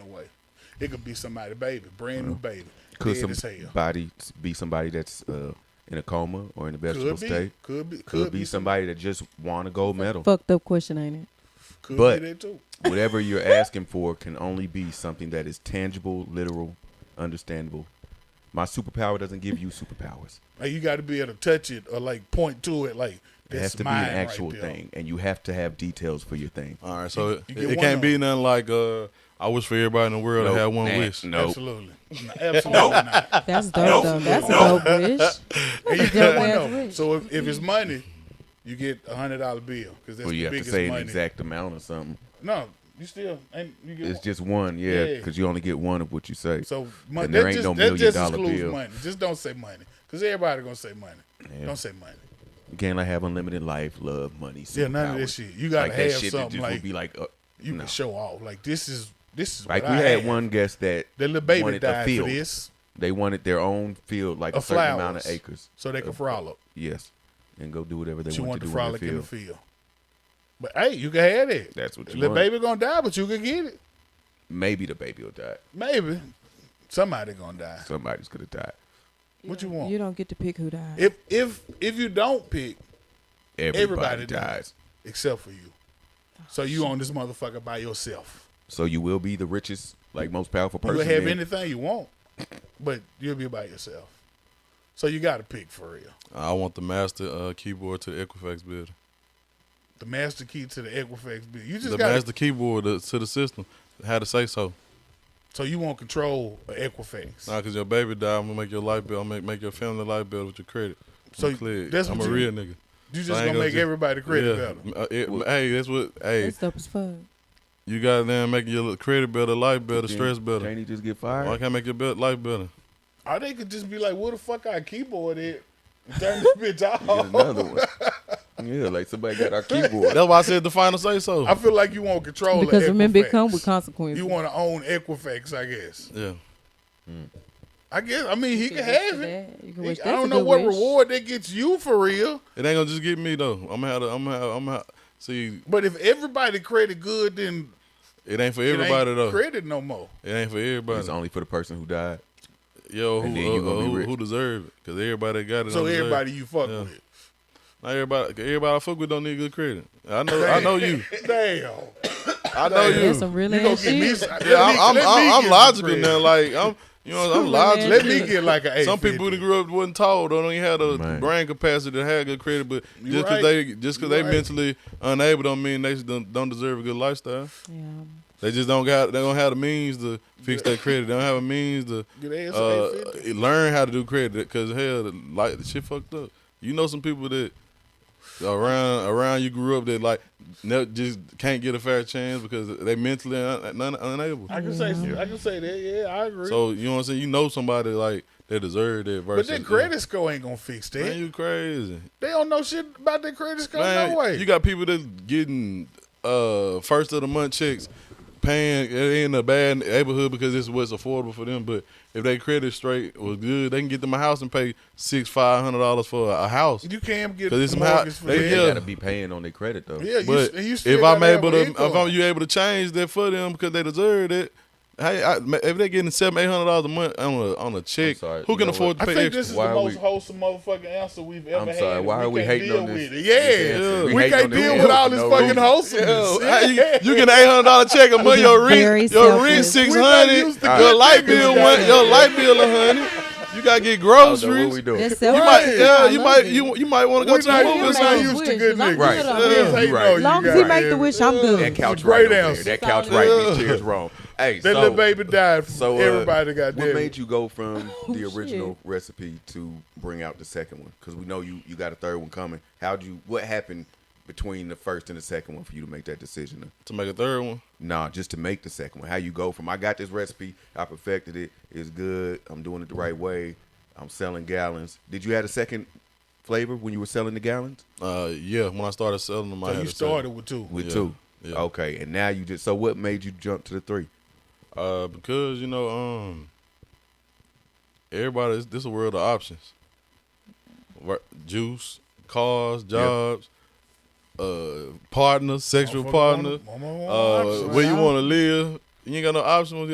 away. It could be somebody, baby, brand new baby, Could dead as hell. somebody be somebody that's uh, in a coma or in a vegetable Could be, state? could be, could, Could, be somebody that just won a gold medal. Fucked up question, ain't it? could but- be that too. Whatever you're asking for can only be something that is tangible, literal, understandable. My superpower doesn't give you superpowers. Like you got to be able to touch it or like point to it. Like It has that's to be mine an actual right there. thing, and you have to have details for your thing. All right, so you it, get it one can't of be them. nothing like uh, I wish for everybody in the world to have one Nah, wish. No, Absolutely, no, absolutely not. That's dope, though. That's a dope wish. And you That's a get dope one ass of them. wish. So if, if it's money, you get a hundred dollar bill because that's well, the you have to biggest say an money. exact amount or something. No, you still ain't you get. It's one. just one, yeah, Yeah. because you only get one of what you say. so money. and there that ain't just, no that million just dollar excludes bill. money. Just don't say money because everybody gonna say money. Yeah. Don't say money. You can't like have unlimited life, love, money. Yeah, none of that superpowers. shit. You gotta like have that shit that something just like would be like uh, you no. can show off. Like this is this is Like what we I had one guest that The little baby wanted a died for field. this, They wanted their own field, like Of a certain amount of flowers. acres. so they can Of- frolic. Yes, and go do whatever they She want want to to do frolic in in the the field. field. But hey, you can have it. That's what you The want. baby gonna die, but you can get it. Maybe the baby will die. Maybe somebody gonna die. Somebody's gonna die. What you want? You don't get to pick who dies. if if if you don't pick, Everybody, everybody dies. dies except for you. So you on this motherfucker by yourself. So you will be the richest, like most powerful person. You'll have then. anything you want, but you'll be by yourself. So you got to pick for real. I want the master uh, keyboard to the Equifax building. The master key to the Equifax bill. You just The got master keyboard to, to the system. How to say so? so you want control of Equifax. Nah, cause your baby died. I'm gonna make your life better. I'm gonna make, make your family life better with your credit. So I'm clear. that's I'm what a you- real nigga. you just I ain't gonna gonna make just- everybody credit better. yeah. Uh, it- hey, that's what. Hey, That's dope as fuck. you got them making your credit better, life better, Then stress better. Can't he just get Why fired? can't I make your be- life better? Or they could just be like, "Where the fuck our keyboard at? Turn this bitch Get off." another one. yeah, like somebody got our keyboard. That's why I said the final say so. I feel like you want control of Because remember, it Equifax. come with consequences. You want to own Equifax, I guess. yeah. I guess. I mean, he You can wish for have it. that. You can wish- I that's a don't know good what wish. reward that gets you for real. It ain't gonna just get me though. I'm gonna have. To, I'm gonna. Have, I'm gonna have, see. But if everybody credit good, then It ain't for it ain't everybody though. credit no more. It ain't for It's everybody. only for the person who died. Yo, who, And then you uh, gonna be uh, who, rich. who deserve it? Because everybody that got it. So don't deserve everybody it. you fuck Yeah. with. Not everybody. 'cause Everybody I fuck with don't need good credit. I know. I know you. Damn. I know you. That's some real You gonna ass get me? shit. some- Yeah, let me- I'm, let I'm, me get I'm, I'm some logical credit. now. Like I'm, you know, I'm Man. logical. Let me get like a. Some people who 850. grew up wasn't tall, though, don't even have the Man. brain capacity to have good credit. But You just right. because they just You because they right. mentally unable don't mean they don't, don't deserve a good lifestyle. Yeah. They just don't got they don't have the means to fix their credit. They don't have a means to Get their ass uh, 850. learn how to do credit. Cause hell, the, like the shit fucked up. You know some people that around around you grew up that like ne- just can't get a fair chance because they mentally un- un- unable. I can say. I can say that. Yeah, I agree. So you know what I'm saying? You know somebody like that deserve that but versus that credit score ain't gonna fix that. Man, you crazy. they don't know shit about their credit score. Man, no way. You got people that getting uh first of the month checks, paying they in a bad neighborhood because it's what's affordable for them. But if they credit straight was good, they can get them a house and pay six five hundred dollars for a house. you can't get 'Cause it's a my- mortgage for they- that. They Yeah. gotta be paying on their credit though. Yeah, you, But s- you still if gotta I'm have able an to, if income. I'm you able to change that for them because they deserve it. Hey, I, if they're getting seven, eight hundred dollars a month on a on a check, sorry, who you can know afford I to pay think extra? this is Why the are most we- wholesome motherfucking answer we've ever I'm had. sorry. Why are we can't hating deal on this? with it. Yeah. answer? We, hating can't on this deal answer with all for this no fucking reason. wholesomeness. Yo, hey, you, you get an eight hundred dollar check a month. Your Very rent, your rent selfless. six We're not hundred. used to Your good light niggas, bill, guys. one, your light bill a hundred. You gotta get I don't know what groceries. we You doing. That's might, selfless. I yeah, you love might, it. you you might want to go We're to not the used not Right. Like, movies. man. used to wish, good as long as niggas. Right. you don't- Yeah. Yes, hey, Right. no, you As long as got he it. make the wish, I'm good. That couch It's a great right over there. answer. That couch Solid. right. These chairs wrong. Hey, That so, little baby died. So So uh, everybody got What dead. made you go from the shit. original recipe to bring out the second one? Because we know you you got a third one coming. How'd you? What happened between the first and the second one for you to make that decision? To make a third one, Nah, just to make the second one. How you go from I got this recipe, I perfected it, it's good, I'm doing it the right way, I'm selling gallons. Did you have a second flavor when you were selling the gallons? uh, yeah. When I started selling them, I So had you to sell them. started with two. With Yeah, two. yeah. Okay, and now you just so what made you jump to the three? Uh, because you know, um, everybody, this is a world of options. Wor- Juice, cars, jobs, uh, partner, sexual Motherfucker partner, want- motherfucker want uh, options. where you want to live. You ain't got no options.